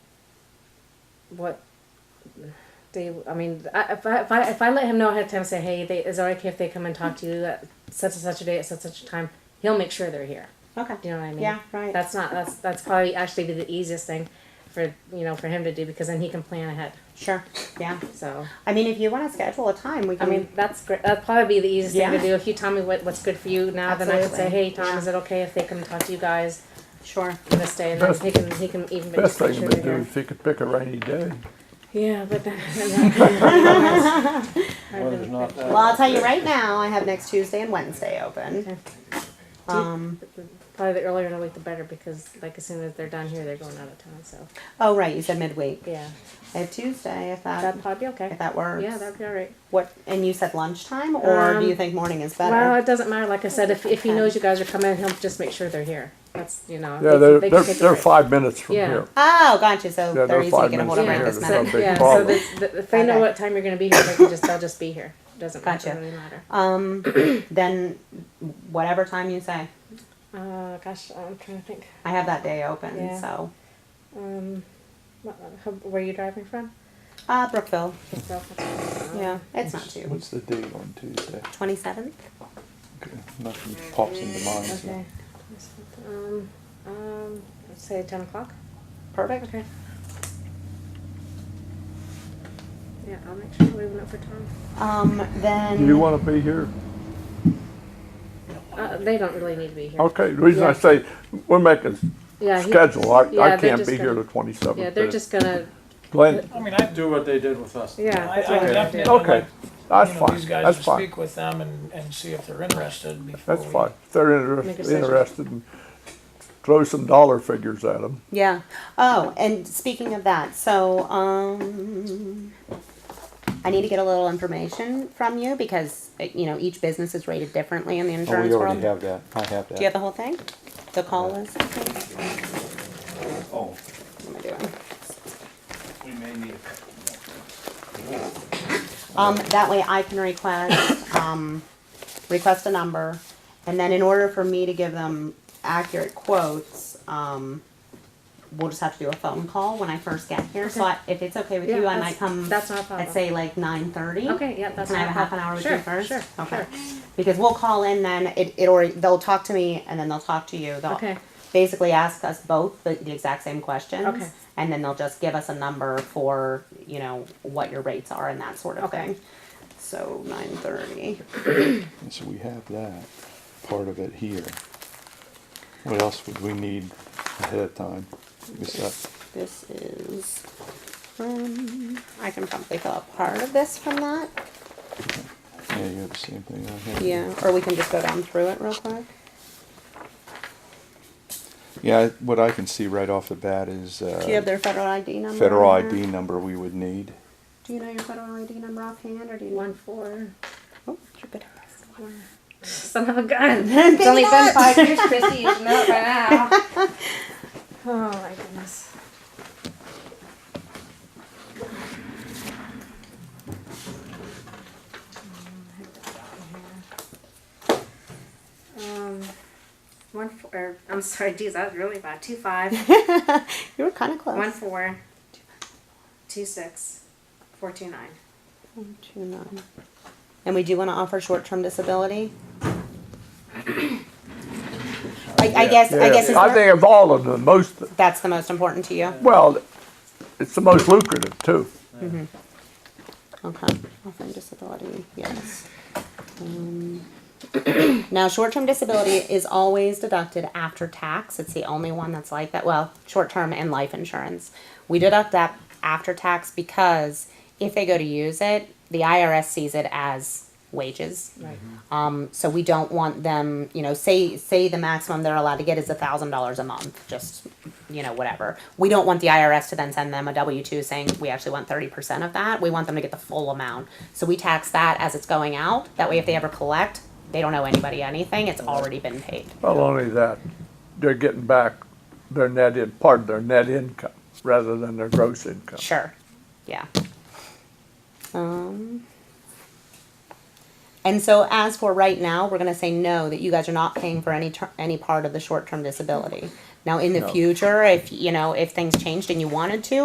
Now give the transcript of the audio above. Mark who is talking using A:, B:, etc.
A: what they, I mean, I, if, I, if I if I let him know ahead of time, say, hey, they, is it okay if they come and talk to you at such and such a day at such and such a time? He'll make sure they're here.
B: Okay.
A: Do you know what I mean?
B: Yeah, right.
A: That's not that's that's probably actually be the easiest thing for you know for him to do because then he can plan ahead.
B: Sure. Yeah.
A: So
B: I mean, if you want to schedule a time, we
A: I
B: can.
A: mean that's great. That'd probably be the easiest thing
B: Yeah.
A: to do. If you tell me what, what's good for you now, then I could say,
B: Absolutely.
A: hey, Tom, is it okay if they come and talk to you guys
C: uh,
B: sure.
A: this day? And then
C: Best-
A: he can he can even
C: Best
A: make
C: thing
A: sure
C: to
A: they're
C: do
A: here. Uh,
C: if you could pick a rainy day.
A: Yeah, but then. I've
D: Weather's
A: been-
D: not
B: Well, I'll tell you right now, I have next Tuesday and Wednesday
A: Okay.
B: open. Um,
A: Probably the earlier in the week, the better because, like, as soon as they're done here, they're going out of town. So,
B: oh, right, you said midweek.
A: yeah,
B: I have Tuesday if that,
A: that'd probably be
B: if
A: okay.
B: that works.
A: Yeah, that'd be all right.
B: What? And you said lunchtime, or do
A: Um,
B: you think morning is better?
A: Well, it doesn't matter. Like I said, if, if he
B: Okay.
A: knows you guys are coming, he'll just make sure they're here. That's you know.
C: Yeah,
A: can-
C: they're,
A: can
C: they're,
A: take a
C: they're
A: break.
C: five minutes from
A: Yeah.
C: here.
B: oh, gotcha. So
C: Yeah,
B: they're
C: they're
B: easy to
C: five
B: get a hold of
C: minutes
B: right
C: from
B: this
C: here. It's
B: minute.
C: not a big
A: yeah,
C: problem.
A: so the, the, if they know
B: Okay.
A: what time you're going to be here, they can just they'll just be here. Doesn't
B: Gotcha.
A: matter, really matter.
B: Um, then whatever time you say,
A: Uh, gosh, I'm trying to think.
B: I have that day open.
A: Yeah.
B: So,
A: Um, what, how, where are you driving from?
B: uh, Brookville.
A: Yeah.
B: Yeah, it's not too.
D: What's the date on Tuesday?
B: Twenty seventh.
D: Okay, Nothing pops into mind. so-
A: Okay. Um, um, let's say ten o'clock.
B: Perfect.
A: Okay. Yeah, I'll make sure we're leaving it for Tom.
B: Um, then.
C: Do you want to be here?
A: Uh, they don't really need to be here.
C: Okay, the reason
A: Yeah.
C: I say, we're making
A: Yeah, he-
C: schedule, I,
A: yeah,
C: I
A: they're
C: can't
A: just
C: be here
A: gonna-
C: the twenty-seventh.
A: Yeah, they're just gonna,
C: Glenn,
E: I mean, I'd do what they did with us.
A: Yeah,
E: I-
A: that's
E: I
A: what I would
E: definitely
A: do.
E: like,
C: Okay, that's
E: you know,
C: fine,
E: These guys
C: that's
E: to
C: fine,
E: speak with them and, and see if they're interested before
C: that's
E: we.
C: fine. If they're
A: Make a
C: inter-
A: session.
C: interested, throw some dollar figures at them.
B: Yeah. Oh, and speaking of that, so um, I need to get a little information from you because uh, you know each business is rated differently in the
D: Oh,
B: insurance
D: we
B: world.
D: already have that. I have
B: Do you have
D: that.
B: the whole thing? The call list. What
D: Oh,
B: am I doing?
D: we may need a
B: Um, that way I can request, um, request a number, and then in order for me to give them accurate quotes, um, we'll just have to do a phone call when I first get here, so I, if it's okay with
A: Yeah,
B: you, I
A: that's-
B: might come.
A: that's not a problem.
B: I'd say like nine thirty.
A: okay, yeah, that's.
B: Can I have a
A: not
B: half an
A: problem.
B: hour with
A: Sure,
B: you first?
A: Sure,
B: Okay.
A: sure.
B: Because we'll call in then, it, it, or they'll talk to me and then they'll talk to you. They'll
A: Okay.
B: Basically ask us both the, the exact same questions.
A: Okay.
B: And then they'll just give us a number for, you know, what your rates are and that sort of
A: Okay.
B: thing. So nine thirty.
D: And so we have that part of it here. What else would we need ahead of time? Besides,
B: This is, um, I can probably fill out part of this from that.
D: yeah, you have the same thing on here.
B: Yeah, or we can just go down through it real quick.
D: Yeah, I- what I can see right off the bat is,
B: Do you have
D: uh,
B: their federal ID number?
D: federal
B: on there?
D: ID number we would need.
B: Do you know your federal ID number offhand or do you?
A: One, four,
B: Oh, you're good at this.
A: four. Son of a gun. It's only been
B: nuts.
A: five years, Chrissy, you should know it by now. Oh, my goodness. Um, One, four, er, I'm sorry, geez, that was really bad. Two, five.
B: You were kind of close.
A: One four, two six, four two nine.
B: One, two, nine. And we do want to offer short-term disability. I, I guess, I guess it's
C: I think of all of them, most,
B: that's the most important to you.
C: well, it's the most lucrative too.
B: Okay, offering disability, yes. Um, Now, short-term disability is always deducted after tax. It's the only one that's like that. Well, short-term and life insurance. We deduct that after tax because if they go to use it, the IRS sees it as wages.
A: Right.
B: Um, so we don't want them, you know, say say the maximum they're allowed to get is a thousand dollars a month, just you know, whatever. We don't want the IRS to then send them a W two saying we actually want thirty percent of that. We want them to get the full amount. So we tax that as it's going out. That way if they ever collect, they don't owe anybody anything. It's already been paid.
C: Not only that, they're getting back their net in, part of their net income rather than their gross income.
B: Sure. Yeah. Um, and so as for right now, we're gonna say no, that you guys are not paying for any ter- any part of the short-term disability. Now, in the
C: No.
B: future, if, you know, if things changed and you wanted to,